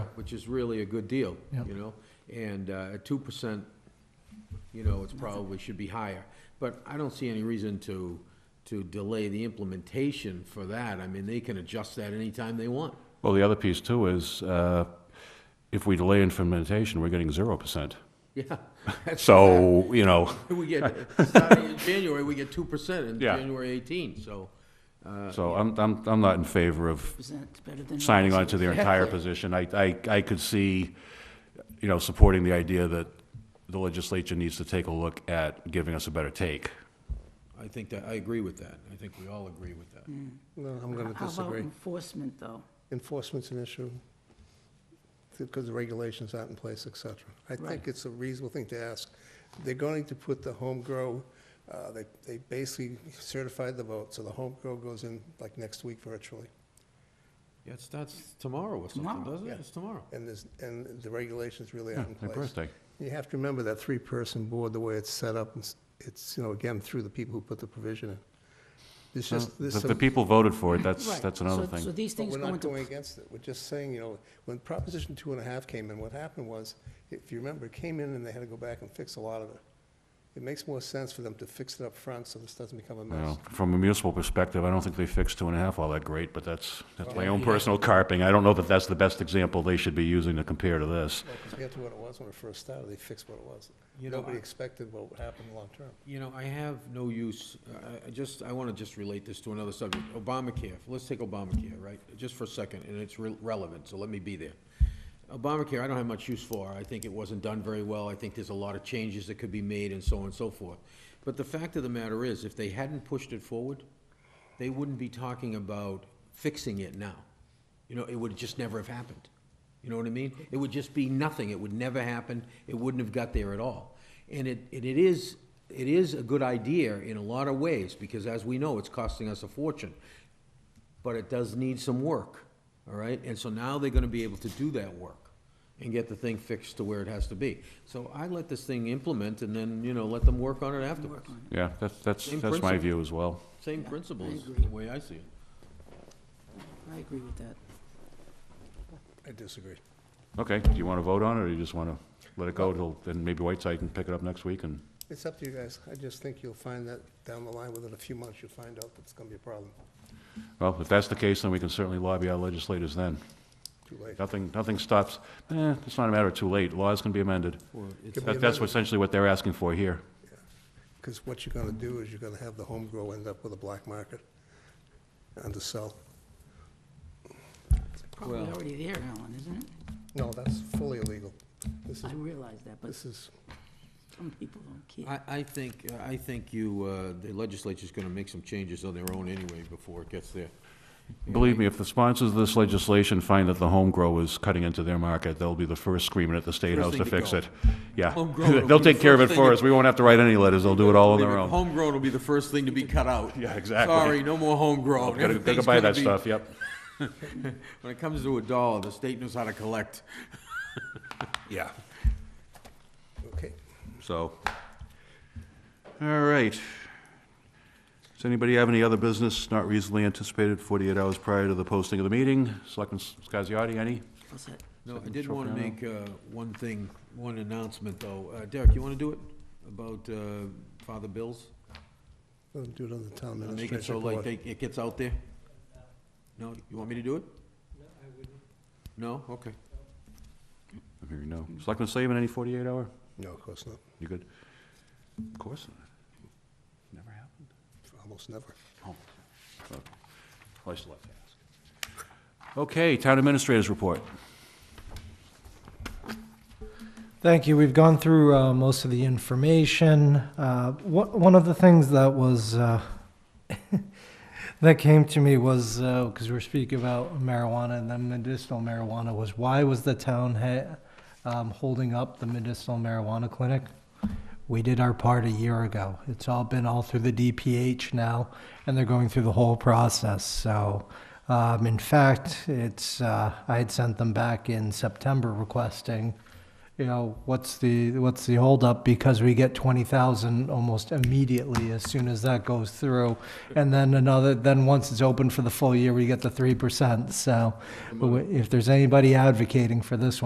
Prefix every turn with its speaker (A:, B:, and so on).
A: which is really a good deal,
B: Yep.
A: you know? And uh, at two percent, you know, it's probably should be higher. But I don't see any reason to, to delay the implementation for that. I mean, they can adjust that anytime they want.
C: Well, the other piece too is, uh, if we delay implementation, we're getting zero percent.
A: Yeah. that's-
C: So, you know,
A: We get, starting in January, we get two percent in
C: Yeah.
A: January eighteen, so. uh,
C: so I'm, I'm, I'm not in favor of
D: Percent better than.
C: signing on to their entire
A: Exactly.
C: position. I, I, I could see, you know, supporting the idea that the legislature needs to take a look at giving us a better take.
A: I think that, I agree with that. I think we all agree with that.
E: No, I'm going to
D: How about
E: disagree.
D: enforcement, though?
E: Enforcement's an issue because the regulations aren't in place, et cetera. I think
D: Right.
E: it's a reasonable thing to ask. They're going to put the home grow, uh, they, they basically certified the vote, so the home grow goes in like next week virtually.
A: Yeah, it starts tomorrow or something,
D: Tomorrow.
A: doesn't it?
E: Yeah.
A: It's tomorrow.
E: And there's, and the regulations really
C: Yeah,
E: aren't in
C: their
E: place.
C: birthday.
E: You have to remember that three-person board, the way it's set up, it's- it's, you know, again, through the people who put the provision in. There's just, there's
C: If
E: some.
C: the people voted for it, that's,
D: Right.
C: that's another
D: So- So
C: thing.
D: these
E: But
D: things
E: we're
D: go
E: not going
D: into,
E: against it, we're just saying, you know, when Proposition two and a half came in, what happened was, if you remember, it came in and they had to go back and fix a lot of it. It makes more sense for them to fix it up front, so this doesn't become a
C: You
E: mess.
C: know, From a municipal perspective, I don't think they fixed two and a half all that great, but that's, that's my own
A: Yeah.
C: personal carping. I don't know that that's the best example they should be using to compare to this.
E: Well, compared to what it was when it first started, they fixed what it was.
A: You know,
E: Nobody
A: I-
E: expected what would happen long-term.
A: You know, I have no use, I- I just, I want to just relate this to another subject, Obamacare. Let's take Obamacare, right, just for a second, and it's re- relevant, so let me be there. Obamacare, I don't have much use for. I think it wasn't done very well. I think there's a lot of changes that could be made and so on and so forth. But the fact of the matter is, if they hadn't pushed it forward, they wouldn't be talking about fixing it now. You know, it would just never have happened. You know what I mean? It would just be nothing. It would never happen. It wouldn't have got there at all. And it, and it is, it is a good idea in a lot of ways, because as we know, it's costing us a fortune but it does need some work, all right? And so now they're gonna be able to do that work and get the thing fixed to where it has to be. So I let this thing implement and then, you know, let them work on it afterwards.
C: Yeah, that's, that's,
A: Same
C: that's my
A: principle.
C: view as well.
A: Same
D: Yeah,
A: principle
D: I
A: is
D: agree.
A: the way I see it.
D: I agree with that.
E: I disagree.
C: Okay, do you want to vote on it, or you just want to let it go till, then maybe Whiteside can pick it up next week and?
E: It's up to you guys. I just think you'll find that down the line, within a few months, you'll find out that it's gonna be a problem.
C: Well, if that's the case, then we can certainly lobby our legislators then.
E: Too late.
C: Nothing, nothing stops, eh, it's not a matter of too late, laws can be amended.
E: Could be
C: That- That's
E: amended.
C: essentially what they're asking for here.
E: Because what you're gonna do is you're gonna have the home grow end up with a black market, undersell.
D: It's probably
A: Well-
D: already there, Alan, isn't it?
E: No, that's fully illegal. This is,
D: I realize that, but
E: this is,
D: some people don't care.
A: I, I think, I think you, uh, the legislature's gonna make some changes on their own anyway before it gets there.
C: Believe me, if the sponsors of this legislation find that the home grow is cutting into their market, they'll be the first screaming at the State
A: First
C: House
A: thing
C: to
A: to
C: fix
A: go.
C: it. Yeah,
A: Home grow will be
C: they'll
A: the
C: take care of
A: first
C: it
A: thing
C: for
A: to-
C: us, we won't have to write any letters, they'll do it all on their own.
A: Homegrown will be the first thing to be cut out.
C: Yeah, exactly.
A: Sorry, no more homegrown.
C: Gotta gotta
A: Everything's
C: buy
A: gonna
C: that
A: be-
C: stuff, yep.
A: When it comes to a dollar, the state knows how to collect.
C: Yeah.
E: okay.
C: So, all right. Does anybody have any other business not reasonably anticipated 48 hours prior to the posting of the meeting? Selectman Scasiotti, any?
D: What's that?
A: No, I
C: Second
A: did want to
C: Tropiano.
A: make uh, one thing, one announcement, though. Uh, Derek, you want to do it? About uh, Father Bill's?
E: Let them do it on the town
A: Uh, Make it
E: administration
A: so like
E: board.
A: they- it gets out there? No, you want me to do it? No, I wouldn't. No? Okay.
C: I'm hearing no. Selectman Slavin, any 48 hour?
E: No, of course not.
C: You good? Of course not. Never happened.
E: Almost never.
C: Oh. Well, I still have to ask. Okay, Town Administrator's Report.
B: Thank you. We've gone through uh, most of the information. Uh, wh- one of the things that was uh, that came to me was because we were speaking about marijuana and then medicinal marijuana was why was the town ha- um, holding up the medicinal marijuana clinic? We did our part a year ago. It's all been all through the DPH now, and they're going through the whole process. So, um, in fact, it's uh, I had sent them back in September requesting you know, what's the, what's the holdup? Because we get twenty thousand almost immediately as soon as that goes through. And then another, then once it's open for the full year, we get the three percent, so but if there's anybody advocating for this